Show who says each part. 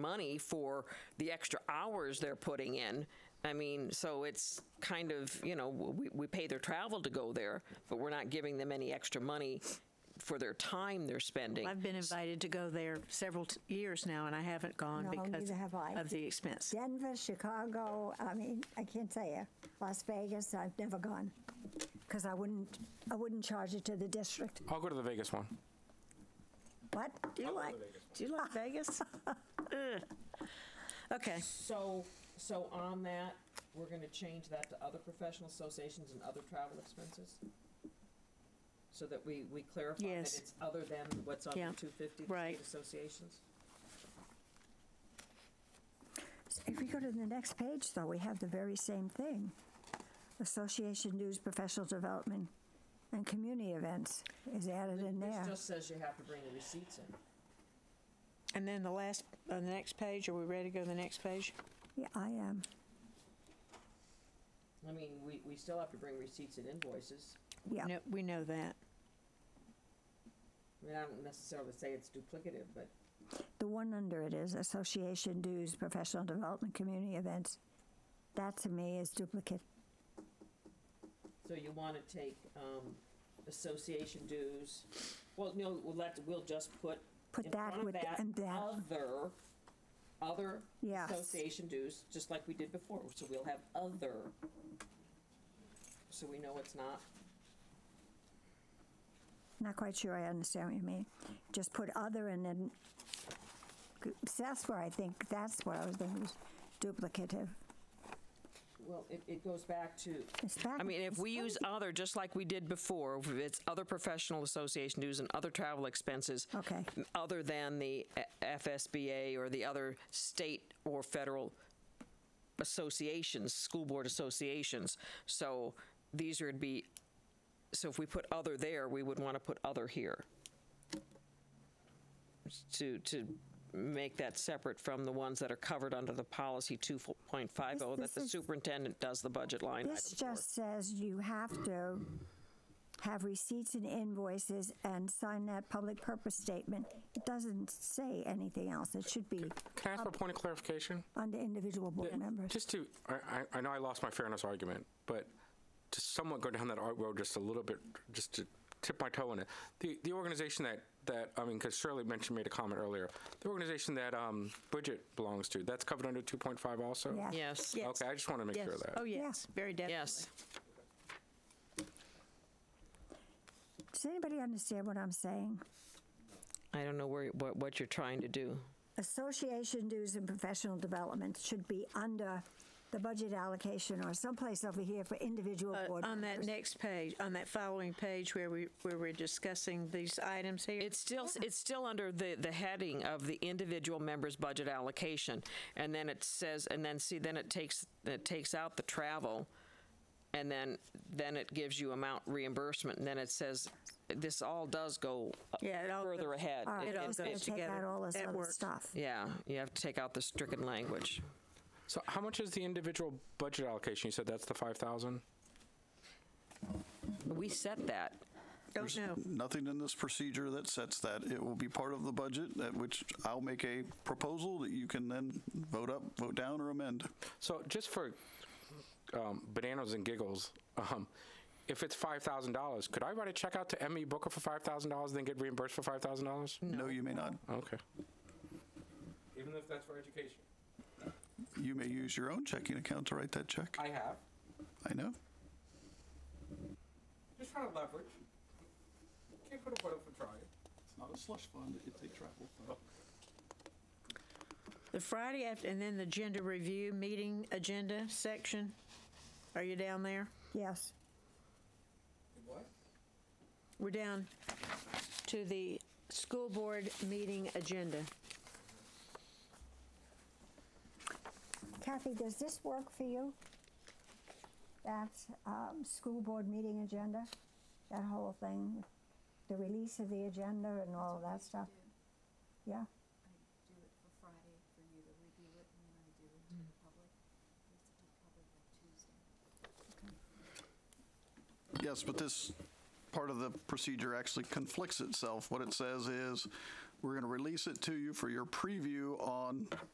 Speaker 1: money for the extra hours they're putting in. I mean, so it's kind of, you know, we, we pay their travel to go there, but we're not giving them any extra money for their time they're spending.
Speaker 2: I've been invited to go there several t- years now, and I haven't gone
Speaker 3: No,
Speaker 2: because
Speaker 3: neither have I.
Speaker 2: of the expense.
Speaker 3: Denver, Chicago, I mean, I can't say it. Las Vegas, I've never gone. Because I wouldn't, I wouldn't charge it to the district.
Speaker 4: I'll go to the Vegas one.
Speaker 3: What?
Speaker 2: Do you like, do you like Vegas? Ugh. Okay,
Speaker 5: So, so on that, we're gonna change that to other professional associations and other travel expenses? So that we, we clarify that
Speaker 2: Yes.
Speaker 5: it's other than what's on
Speaker 2: Yeah,
Speaker 5: the two fifty, the state
Speaker 2: right.
Speaker 5: associations?
Speaker 3: If we go to the next page, though, we have the very same thing. Association News Professional Development and Community Events is added in
Speaker 5: This
Speaker 3: there.
Speaker 5: just says you have to bring the receipts in.
Speaker 2: and then the last, uh, the next page, are we ready to go to the next page?
Speaker 3: Yeah, I am.
Speaker 5: I mean, we, we still have to bring receipts and invoices.
Speaker 3: Yeah.
Speaker 2: No, We know that.
Speaker 5: I mean, I don't necessarily say it's duplicative, but
Speaker 3: The one under it is Association Dues, Professional Development, Community Events. That to me is duplicate.
Speaker 5: So you want to take um, association dues, well, no, we'll let, we'll just put.
Speaker 3: Put
Speaker 5: in
Speaker 3: that
Speaker 5: front of
Speaker 3: with the- and that.
Speaker 5: Other, other
Speaker 3: Yes.
Speaker 5: association dues, just like we did before, so we'll have other. So we know it's not,
Speaker 3: Not quite sure I understand what you mean. Just put other and then, that's where I think, that's what I was thinking was duplicative.
Speaker 5: well, it, it goes back to,
Speaker 3: It's back-
Speaker 1: I mean, if we use other, just like we did before, if it's other professional association dues and other travel expenses.
Speaker 3: Okay.
Speaker 1: m- Other than the uh, FSBA or the other state or federal associations, school board associations. So these would be, so if we put other there, we would want to put other here. To, to make that separate from the ones that are covered under the policy 2.50
Speaker 3: This-
Speaker 1: oh, that the
Speaker 3: this is-
Speaker 1: superintendent does the budget line item
Speaker 3: This
Speaker 1: for.
Speaker 3: just says you have to have receipts and invoices and sign that public purpose statement. It doesn't say anything else. It should be
Speaker 4: Can I ask for a point of clarification?
Speaker 3: under individual board members.
Speaker 4: Just to, I, I- I know I lost my fairness argument, but to somewhat go down that art road just a little bit, just to tip my toe in it. The, the organization that, that, I mean, because Shirley mentioned, made a comment earlier, the organization that um, Bridget belongs to, that's covered under 2.5 also?
Speaker 3: Yeah.
Speaker 1: Yes,
Speaker 2: Yes.
Speaker 4: Okay, I just want to make
Speaker 2: Yes.
Speaker 4: sure of that.
Speaker 2: Oh, yes, very definitely.
Speaker 1: yes.
Speaker 3: Does anybody understand what I'm saying?
Speaker 1: I don't know where, what, what you're trying to do.
Speaker 3: Association dues and professional development should be under the budget allocation or someplace over here for individual
Speaker 2: Uh,
Speaker 3: board.
Speaker 2: On that next page, on that following page where we, where we're discussing these items here.
Speaker 1: It's still, it's still under the, the heading of the individual member's budget allocation. And then it says, and then see, then it takes, it takes out the travel. And then, then it gives you amount reimbursement. And then it says, this all does go uh,
Speaker 2: Yeah, it all
Speaker 1: further
Speaker 2: goes-
Speaker 1: ahead.
Speaker 3: All right,
Speaker 1: It-
Speaker 2: all
Speaker 1: it's-
Speaker 2: goes
Speaker 1: it's-
Speaker 3: Take out
Speaker 2: together.
Speaker 3: all this
Speaker 2: That
Speaker 3: other
Speaker 2: works.
Speaker 3: stuff.
Speaker 1: Yeah, you have to take out the stricken language.
Speaker 4: So how much is the individual budget allocation? You said that's the 5,000?
Speaker 1: We set that.
Speaker 2: Don't know.
Speaker 6: Nothing in this procedure that sets that. It will be part of the budget, at which I'll make a proposal that you can then vote up, vote down, or amend.
Speaker 4: So just for um, bananas and giggles, um, if it's five thousand dollars, could I write a check out to Emmy Booker for five thousand dollars, then get reimbursed for five thousand dollars?
Speaker 6: No, you may not.
Speaker 4: Okay.
Speaker 7: Even if that's for education.
Speaker 6: You may use your own checking account to write that check.
Speaker 7: I have.
Speaker 6: I know.
Speaker 7: Just trying to leverage. Can't put a foot up for trying.
Speaker 6: It's not a slush fund, it's a travel fund.
Speaker 2: The Friday after, and then the gender review meeting agenda section. Are you down there?
Speaker 3: Yes.
Speaker 7: What?
Speaker 2: We're down to the school board meeting agenda.
Speaker 3: Kathy, does this work for you? That um, school board meeting agenda, that whole thing, the release of the agenda and all of that stuff? Yeah,
Speaker 8: do it for Friday for you to review it, and then I do it to the public. We have to do public by Tuesday.
Speaker 6: Yes, but this part of the procedure actually conflicts itself. What it says is, we're going to release it to you for your preview on